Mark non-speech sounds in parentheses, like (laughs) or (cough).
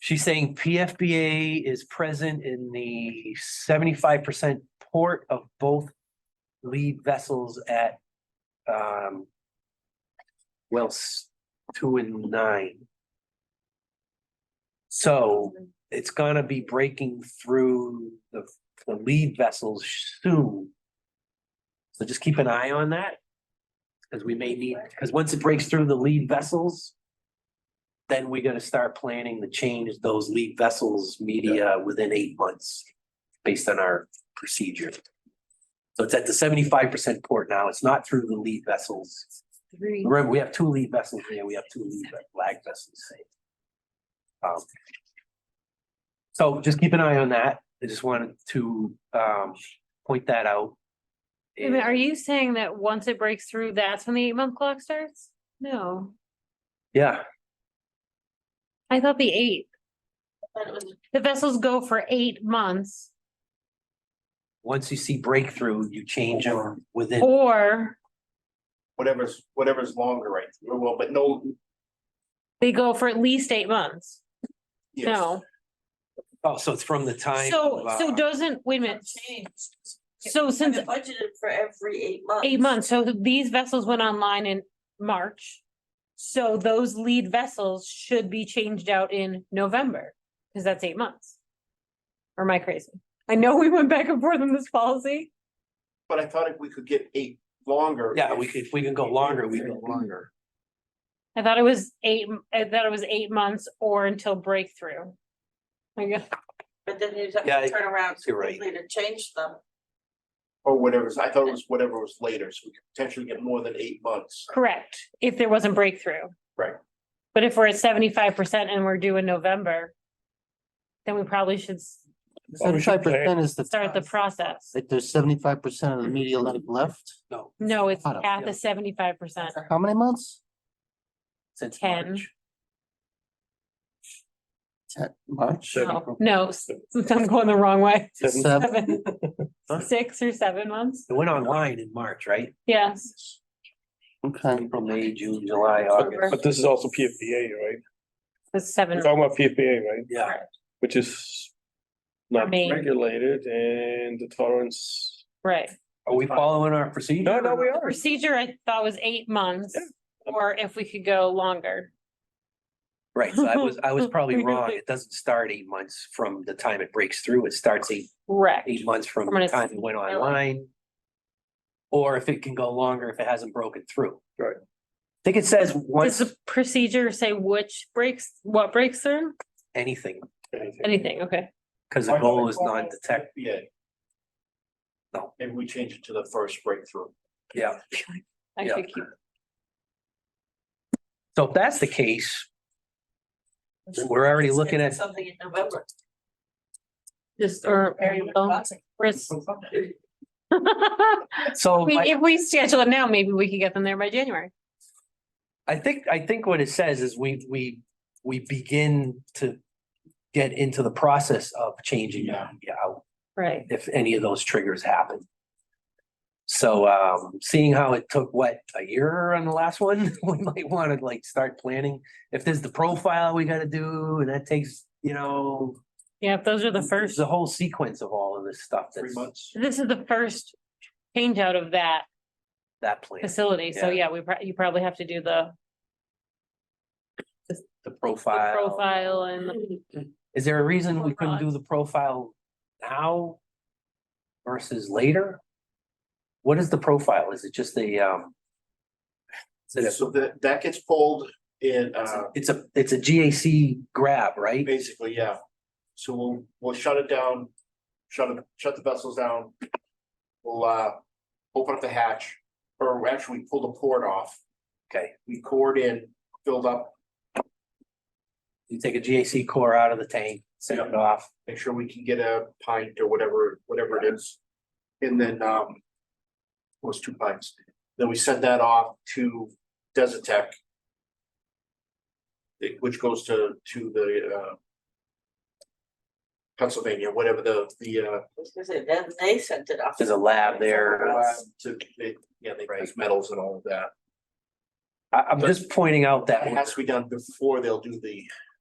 She's saying PFBA is present in the seventy-five percent port of both lead vessels at um wells two and nine. So it's gonna be breaking through the the lead vessels soon. So just keep an eye on that. Cause we may need, cause once it breaks through the lead vessels. Then we gotta start planning to change those lead vessels media within eight months. Based on our procedure. So it's at the seventy-five percent port now. It's not through the lead vessels. Three. Remember, we have two lead vessels here. We have two lead ve- lag vessels. Um, So just keep an eye on that. I just wanted to um point that out. Wait a minute, Are you saying that once it breaks through, that's when the eight month clock starts? No, Yeah, I thought the eight. The vessels go for eight months once you see breakthrough, you change them Oh. within, or whatever's, whatever's longer, right? Well, but no. they go for at least eight months. yes. No, oh, so it's from the time. so, of, so uh, doesn't, wait a minute. Changed. So Since since budgeted for every eight months. eight months, so these vessels went online in March. So those lead vessels should be changed out in November, because that's eight months. Or am I crazy? I know we went back and forth on this policy. But I thought if we could get eight longer. Yeah, we could, if we can go longer, we go longer. I thought it was eight, I thought it was eight months or until breakthrough. I guess, But then you have Yeah, I- to turn around you're right. completely to change them. Or whatever's, I thought it was whatever was later, so we could potentially get more than eight months. correct, if there wasn't breakthrough. Right. But if we're at seventy-five percent and we're due in November, then we probably should s- Seventy-five percent is the. start the process. Like there's seventy-five percent of the media lab left. No, No, it's Hold on. at the seventy-five percent. How many months? since 10. March. Ten, March? No, no, s- I'm going the wrong way. Seven. Seven, six or seven months, It went online in March, right? yes. Okay. April, May, June, July, August. But this is also PFBA, right? It's seven, We're talking about PFBA, right? Yeah, Which is not Main. regulated and the tolerance. right. are we following our procedure? Oh, No, no, we The are. Procedure I thought was eight months, Yeah. or if we could go longer. Right, so I was, I was (laughs) probably wrong. Really? It doesn't start eight months from the time it breaks through. It starts eight, Correct. eight months from From when the it's time it went online. online. Or if it can go longer if it hasn't broken through. Right. I think it says Does once the procedure say which breaks, what breaks through? anything, Anything. Anything, okay. because the goal is non-detect, Yeah. No. Maybe we change it to the first breakthrough. yeah. I Yeah. should keep, So if that's the case, we're already looking at, Something in November. just, or, Very well, promising. Chris. I Oh, (laughs) so mean, I, If we schedule it now, maybe we could get them there by January. I think, I think what it says is we, we, we begin to get into the process of changing Yeah. yeah, out. Right. if any of those triggers happen. So um, seeing how it took, what, a year on the last one, (laughs) we might want to like start planning. If there's the profile we gotta do, and that takes, you know. Yeah, if those are the there's first, A whole sequence of all of this stuff Three that's months. this is the first change out of that that plan, facility, so Yeah. yeah, we, prob- you probably have to do the the the profile. profile and the- Is there a reason we couldn't do the profile now? Versus later? What is the profile? Is it just the um? is it a- So that, that gets pulled in, uh, It's a, it's a GAC grab, right? basically, yeah. So we'll, we'll shut it down, shut it, shut the vessels down. We'll, uh, open up the hatch, or actually pull the port off. Okay. We poured in, filled up, You take a GAC core out of the tank, set it off. make sure we can get a pint or whatever, whatever it is. And then, um, was two pints. Then we send that off to Desertec. it- Which goes to, to the, uh, Pennsylvania, whatever the, the, uh, I was gonna say, Then they sent it off. There's a lab there. uh, lab to, they, yeah, they raise metals and all of that. I, I'm just pointing out That that has to be done before they'll do the